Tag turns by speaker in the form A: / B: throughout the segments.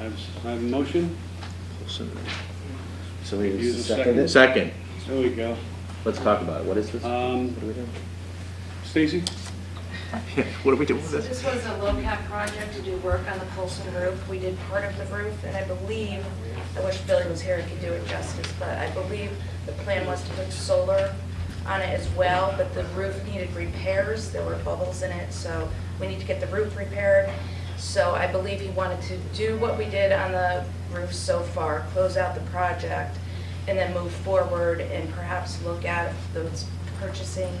A: I have, s- I have a motion,
B: So we
A: Use a
B: just second it?
C: Second,
A: there we go.
B: Let's talk about it. What is this? What
A: Um,
B: are we doing?
A: Stacy?
C: what are we doing with
D: So
C: this?
D: this was a LoCap project to do work on the Colson roof. We did part of the roof, and I believe, I wish Billy was here, and could do it justice, but I believe the plan was to put solar on it as well, but the roof needed repairs. There were bubbles in it, so we need to get the roof repaired. So I believe he wanted to do what we did on the roof so far, close out the project, and then move forward and perhaps look at those purchasing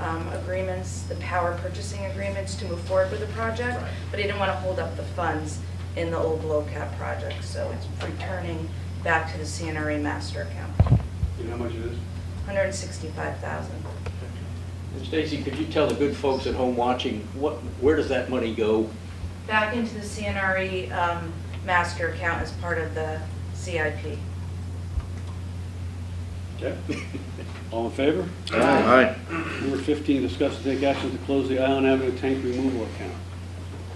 D: um, agreements, the power purchasing agreements to move forward with the project,
B: Right.
D: but he didn't want to hold up the funds in the old low cap project, so it's returning back to the CNRE E master account,
A: You know how much it is?
D: 165,000.
E: Stacy, could you tell the good folks at home watching, what, where does that money go?
D: Back into the CNRE um, master account as part of the CIP.
A: Okay. All in favor?
C: All right,
A: Number 15, discuss and take action to close the Island Avenue tank removal account.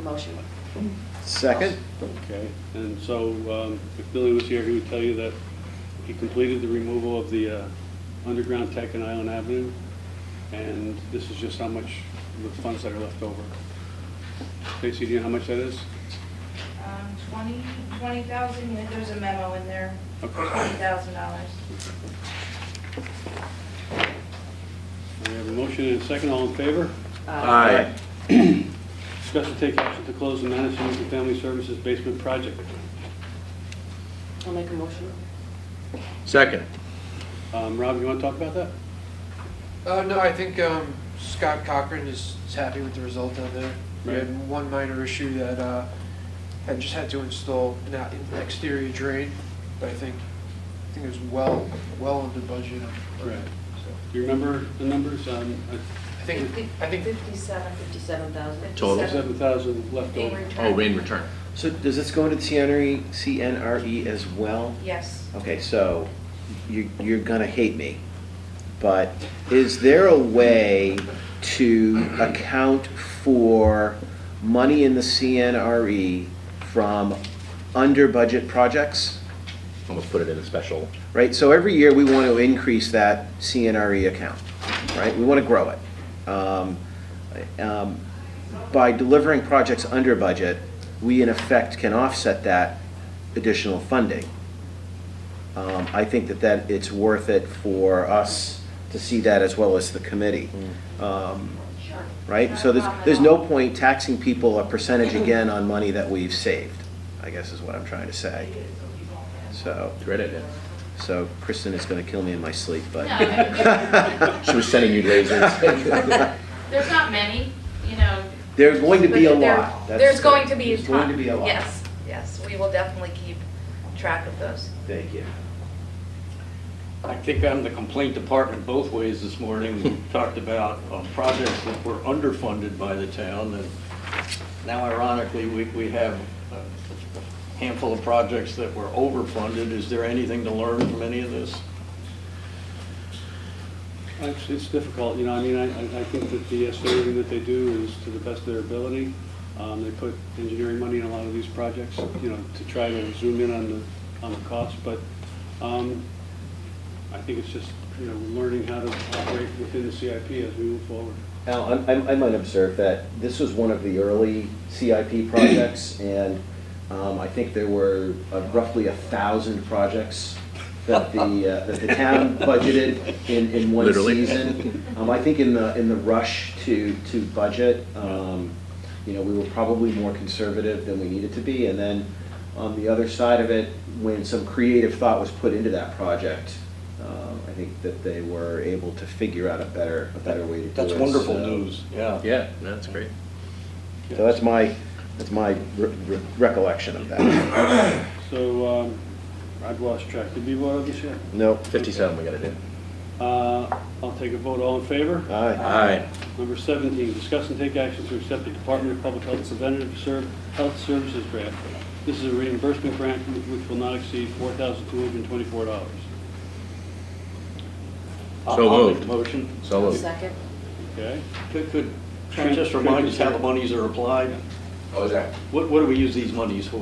D: Motion.
B: Second?
A: Okay, and so um, if Billy was here, he would tell you that he completed the removal of the uh, underground tank on Island Avenue, and this is just how much, the funds that are left over. Stacy, do you know how much that is?
D: Um, 20, 20,000, yeah, there's a memo in there,
A: Okay.
D: $20,000.
A: We have a motion and a second, all in favor?
C: aye,
A: Discuss and take action to close the Madison Youth and Family Services basement project.
F: I'll make a motion.
C: second,
A: Um, Rob, you want to talk about that?
G: Uh, no, I think, um, Scott Cochran is is happy with the result of it. We
A: Right.
G: had one minor issue that, uh, had just had to install an out- an exterior drain, but I think, I think it was well, well under budget.
A: Right.
G: So,
A: Do you remember the numbers? Um,
G: I think, I think
D: 57.
F: 57,000.
C: Total.
A: Seven thousand left
D: Being
A: over.
D: returned.
C: oh, rain return.
B: So does this go into CNRE, CNRE E as well?
D: Yes.
B: Okay, so you, you're gonna hate me, but is there a way to account for money in the CNRE E from under-budget projects?
C: Almost put it in a special.
B: right? So every year, we want to increase that CNRE E account, right? We want to grow it. Um, um, By delivering projects under budget, we in effect can offset that additional funding. Um, I think that that, it's worth it for us to see that as well as the committee. Um, Right? So there's, there's no point taxing people a percentage again on money that we've saved, I guess is what I'm trying to say. So.
C: Great idea.
B: So Kristen is going to kill me in my sleep, but.
H: No, I
C: She was sending you lasers.
H: There's not many, you know,
B: There's going to be a
D: But there-
B: lot. That's-
D: There's going to be a ton.
B: There's going to be a lot.
D: Yes, yes, we will definitely keep track of those.
B: Thank you.
E: I think I'm the complaint department both ways this morning. We talked about uh, projects that were underfunded by the town, and now ironically, we, we have a handful of projects that were overfunded. Is there anything to learn from any of this?
A: It's, it's difficult, you know, I mean, I, I- I think that the estimating that they do is to the best of their ability. Um, they put engineering money in a lot of these projects, you know, to try to zoom in on the, on the cost, but, um, I think it's just, you know, learning how to operate within the CIP as we move forward.
B: Al, I'm- I'm- I might observe that this was one of the early CIP projects, and um, I think there were uh, roughly a thousand projects that the, uh, that the town budgeted in, in one
C: Literally.
B: season. Um, I think in the, in the rush to, to budget, um, you know, we were probably more conservative than we needed to be. And then on the other side of it, when some creative thought was put into that project, um, I think that they were able to figure out a better, a better way to do it.
E: That's wonderful
B: So-
E: news, yeah.
C: Yeah, no, that's great.
B: So that's my, that's my re- re- recollection of that.
A: So, um, I've lost track, did we vote on this yet?
B: Nope.
C: Fifty-seven we gotta do.
A: Uh, I'll take a vote, all in favor?
B: Aye.
C: Aye,
A: Number 17, discuss and take action to accept the Department of Public Health Preventative Serv- Health Services grant. This is a reimbursement grant wh- which will not exceed $4,224.
C: So
E: I'll- I'll make
C: moved.
E: the Motion.
C: so moved.
F: Second.
A: Okay?
E: Could, could, Trent just remind us how the monies are applied?
C: Oh, is that?
E: What, what do we use these monies for?